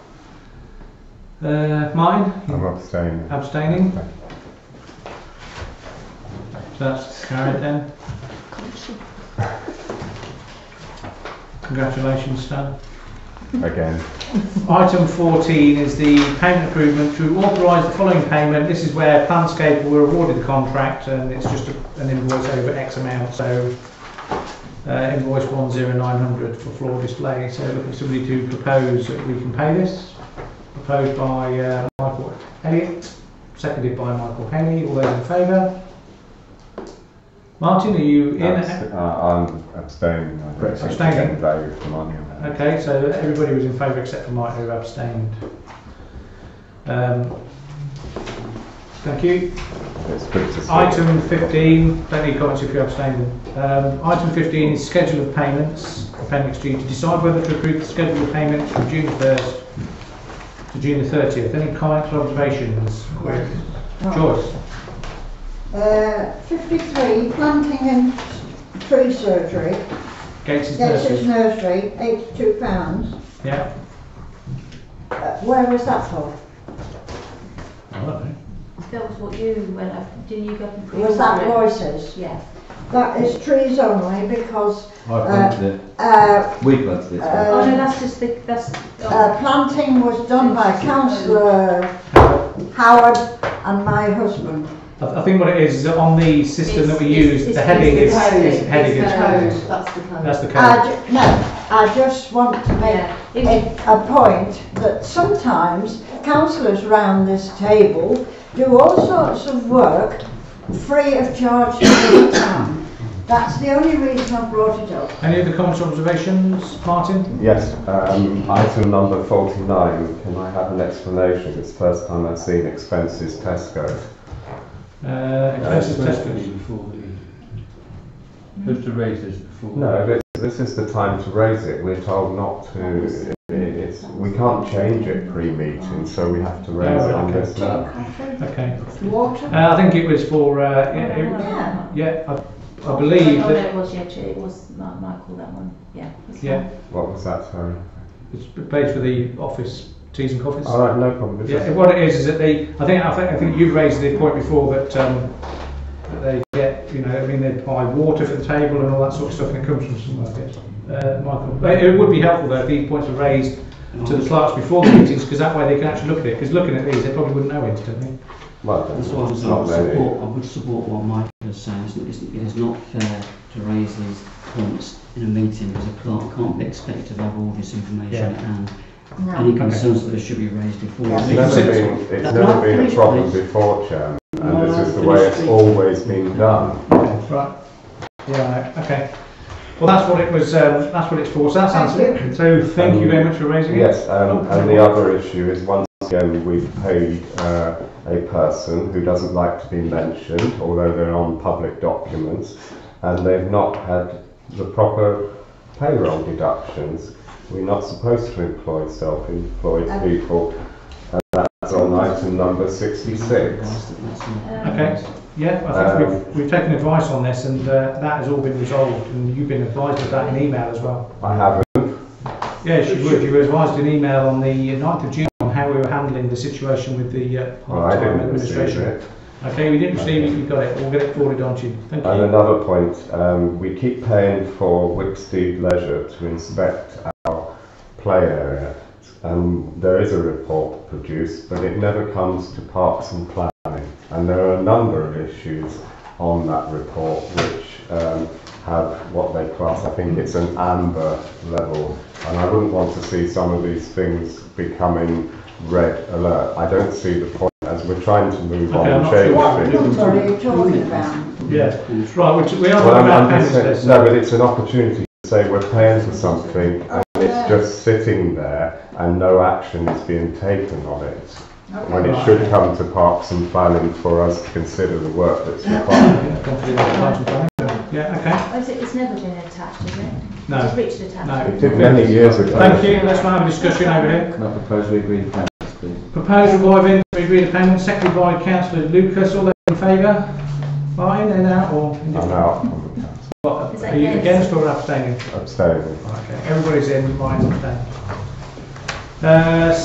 Uh, Martin? I'm abstaining. Abstaining? So that's carried then. Congratulations, Stan. Again. Item 14 is the payment improvement to authorise the following payment. This is where Planscape were awarded the contract and it's just a- an invoice over X amount, so uh, invoice 10900 for floor display. So looking for somebody to propose that we can pay this. Proposed by uh, Michael Elliott, seconded by Michael Henley. All those in favour? Martin, are you in? Abst- uh, I'm abstaining. I don't think Abstaining. there's any value for money on that. Okay, so everybody was in favour except for Mike who abstained. Um, Thank you. It's good to see. Item 15, don't need comments if you abstain. Um, Item 15 is schedule of payments, appendix G, to decide whether to approve the schedule of payments from June 1st to June the 30th. Any comments or observations? Quick. Joyce? Oh. Uh, 53, planting and tree surgery, Gates' Gateshead nurses? Nursery, £82. Yeah? Uh, Where was that for? I don't know. That was what you went up, didn't you go up and pre Was that Um, Royce's? Yeah. That is trees only because, I planted it. uh, We planted it. uh, Oh no, that's just the, that's, uh, oh, planting was done by councillor Howard and my husband. I I think what it is, is that on the system that we It's- use, it's- the heading is, it's the code, is- heading it's is, the that's code, That's the the code. code. I ju- no, I just want to make yeah. It was- a, a point that sometimes councillors round this table do all sorts of work free of charge to the town. That's the only reason I brought it up. Any other comments or observations, Martin? Yes, um, item number 49. Can I have an explanation? It's the first time I've seen expenses Tesco. Uh, expenses tested. before the. Just to raise this before. No, this, this is the time to raise it. We're told not to. It, it's, we can't change it pre-meeting, so we have to raise it on okay. this now. Okay. Water? Uh, I think it was for, uh, yeah, it- Yeah. yeah, I, I believe Oh, no, that it was, yeah, it was Ma- Michael, that one, yeah. that's Yeah. fine. What was that, sorry? it's paid for the office teas and coffees. All right, no problem. Yeah, what it is, is that they, I think, I think, I think you've raised the point before that, um, that they get, you know, I mean, they buy water for the table and all that sort of stuff, and it comes from somewhere, I guess. Uh, Michael, But it would be helpful though if these points were raised to the clerks before the meetings, because that way they can actually look at it, because looking at these, they probably wouldn't know instantly. Well, That's why I then, was it's I not would really. support, I would support what Mike was saying, it's, it's- it is not fair to raise these points in a meeting, because a clerk can't be expected to have all this information Yeah. and No. any concerns that should be raised before. the Yeah. It's never meeting. been, it's That's never not been a finished, problem please. before, Chairman, No, and this is the no, way finished, it's please. always been done. Right. Yeah, right, okay. Well, that's what it was, um, that's what it's for, so that's Thank answered. So thank you very much for raising it. Yes, um, and the other issue is once again, we've paid, uh, a person who doesn't like to be mentioned, although they're on public documents, and they've not had the proper payroll deductions. We're not supposed to employ self-employed people, and that's on item number sixty-six. That's- that's not- Um, Okay, yeah, I think Um, we've, we've taken advice on this and, uh, that has all been resolved and you've been advised of that in email as well. I haven't, Yes, you were, you were advised in email on the 9th of June on how we were handling the situation with the, uh, well, Oh, I part-time didn't receive administration. it. Okay, we didn't receive it, you got it, we'll get it forwarded on to you, thank And you. another point, um, we keep paying for Wicksteed Leisure to inspect our play area. Um, there is a report produced, but it never comes to parks and planning. And there are a number of issues on that report which um, have what they class, I think it's an amber level. And I wouldn't want to see some of these things becoming red alert. I don't see the point as we're trying to move Okay, I'm on, not and sure why change What things. number are you talking about? Yeah, right, we, we are Well, talking I'm, about I'm payments just there, so- saying, no, but it's an opportunity to say we're paying for something and it's just sitting there and no action is being taken on it. When it should come to parks and planning for us to consider the work that's required. Yeah, confident in the parts and planning. Yeah, okay, Oh, is it, it's never been attached, is it? It's no, Richard attached. no. It did many years ago. Thank you, let's now have a discussion over here. Can I propose we agree with council, please? Proposal by Vince, we agree the payment, seconded by councillor Lucas, all those in favour? Fine, in, out or I'm indifferent? out on the council, What, Is that Are you against? against or abstaining? abstaining. Okay, everybody's in, mine's abstaining. Uh,